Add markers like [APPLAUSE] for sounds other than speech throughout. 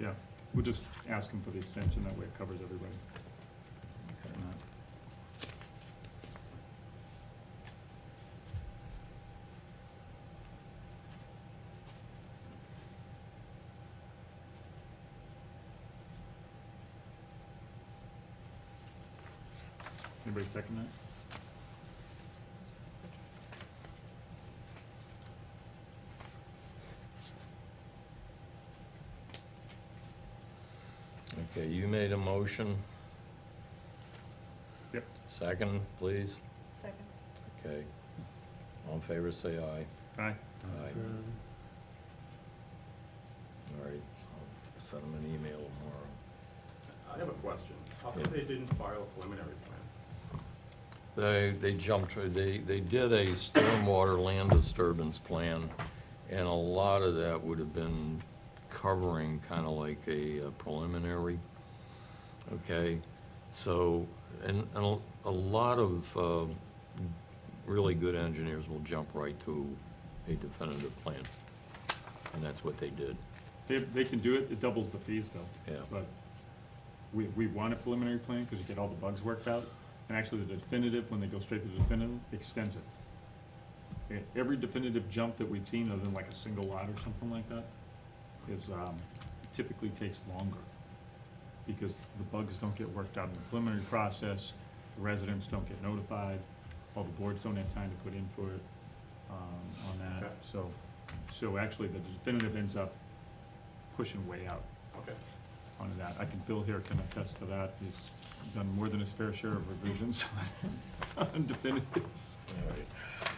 yeah, we'll just ask him for the extension, that way it covers everybody. on that. Anybody second that? Okay, you made a motion. Yep. Second, please. Second. Okay. All in favor, say aye. Aye, Aye. All right, I'll send them an email tomorrow. I have a question. How come they didn't file a preliminary plan? They, they jumped, they, they did a stormwater land disturbance plan, and a lot of that would have been covering kind of like a uh, preliminary. Okay, so, and, and a- a lot of, uh, really good engineers will jump right to a definitive plan. And that's what they did, they, they can do it, it doubles the fees though. yeah. But we, we want a preliminary plan, cause you get all the bugs worked out, and actually the definitive, when they go straight to the definitive, extends it. Okay, Every definitive jump that we've seen, other than like a single lot or something like that, is, um, typically takes longer. Because the bugs don't get worked out in the preliminary process, the residents don't get notified, all the boards don't have time to put in for it, um, on that, Okay. so, so actually the definitive ends up pushing way out Okay. on that. I think Bill here can attest to that. He's done more than his fair share of revisions [LAUGHS] on definitives. All right.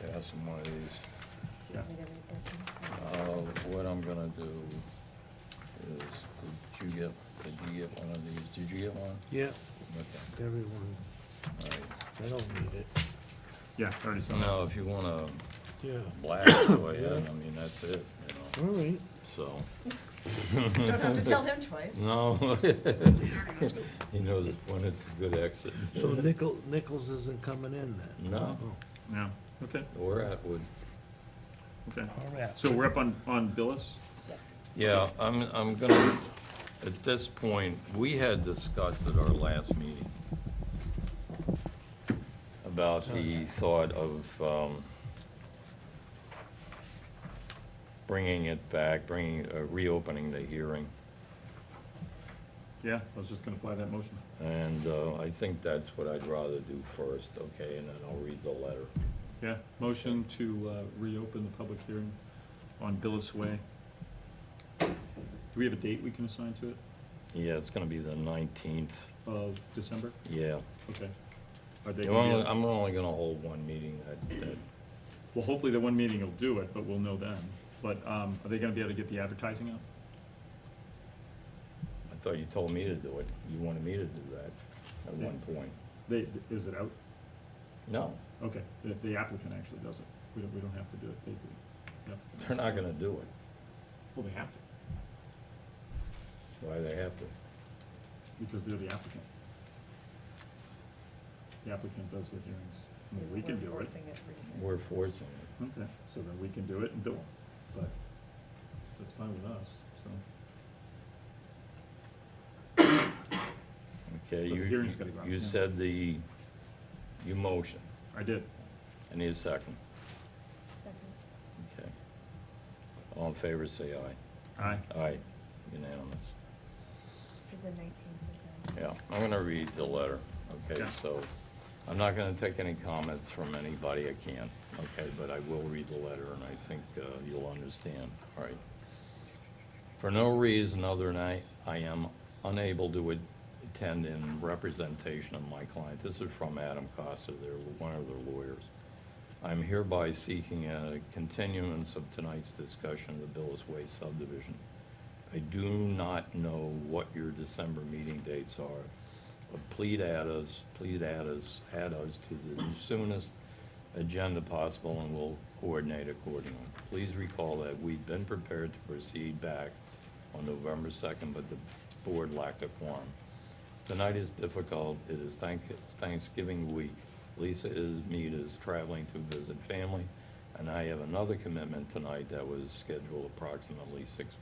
Pass them one of these. Do you want me to read this one? [LAUGHS] Uh, what I'm gonna do is, did you get, did you get one of these? Did you get one? Yeah, Okay, everyone, all I don't need it, Yeah, already right. saw that. Now, if you wanna yeah, blast it away, I mean, that's it, you all know, right. so, Don't have to tell him twice. no. [LAUGHS] He knows when it's a good exit. So Nichol, Nichols isn't coming in then? No. Oh, Yeah, okay, Or Atwood. okay. All right. So we're up on, on Billis? Yeah, I'm, I'm gonna, at this point, we had discussed at our last meeting about the thought of, um, bringing it back, bringing, uh, reopening the hearing. Yeah, I was just gonna apply that motion. And, uh, I think that's what I'd rather do first, okay, and then I'll read the letter. Yeah, motion to uh, reopen the public hearing on Billis Way. Do we have a date we can assign to it Yeah, it's gonna be the nineteenth, of December? yeah. Okay. Are they I'm gonna be- only, I'm only gonna hold one meeting that, that Well, hopefully the one meeting will do it, but we'll know then. But, um, are they gonna be able to get the advertising out? I thought you told me to do it. You wanted me to do that at one point. They, is it out? No, Okay, the, the applicant actually does it. We don't, we don't have to do it, they do. Yep. they're not gonna do it. Well, they have to, Why they have to? because they're the applicant. The applicant does the hearings. I mean, We can We're do it. forcing it. We're forcing it. Okay, so then we can do it and bill them, but that's fine with us, so. Okay, But the you, hearing's gotta go out, you yeah. said the, you motion. I did. I need a second. Second. Okay. All in favor, say aye. Aye. Aye, unanimous. So the nineteenth is on. Yeah, I'm gonna read the letter, okay, Yeah. so, I'm not gonna take any comments from anybody, I can't, okay, but I will read the letter, and I think uh, you'll understand, all right. For no reason other than I, I am unable to at- attend in representation of my client, this is from Adam Costa, they're one of their lawyers. I'm hereby seeking a continuance of tonight's discussion of the Billis Way subdivision. I do not know what your December meeting dates are, but please add us, please add us, add us to the soonest agenda possible, and we'll coordinate accordingly. Please recall that we've been prepared to proceed back on November 2nd, but the board lacked a quorum. Tonight is difficult, it is thank- it's Thanksgiving week. Lisa is, Mead is traveling to visit family, and I have another commitment tonight that was scheduled approximately six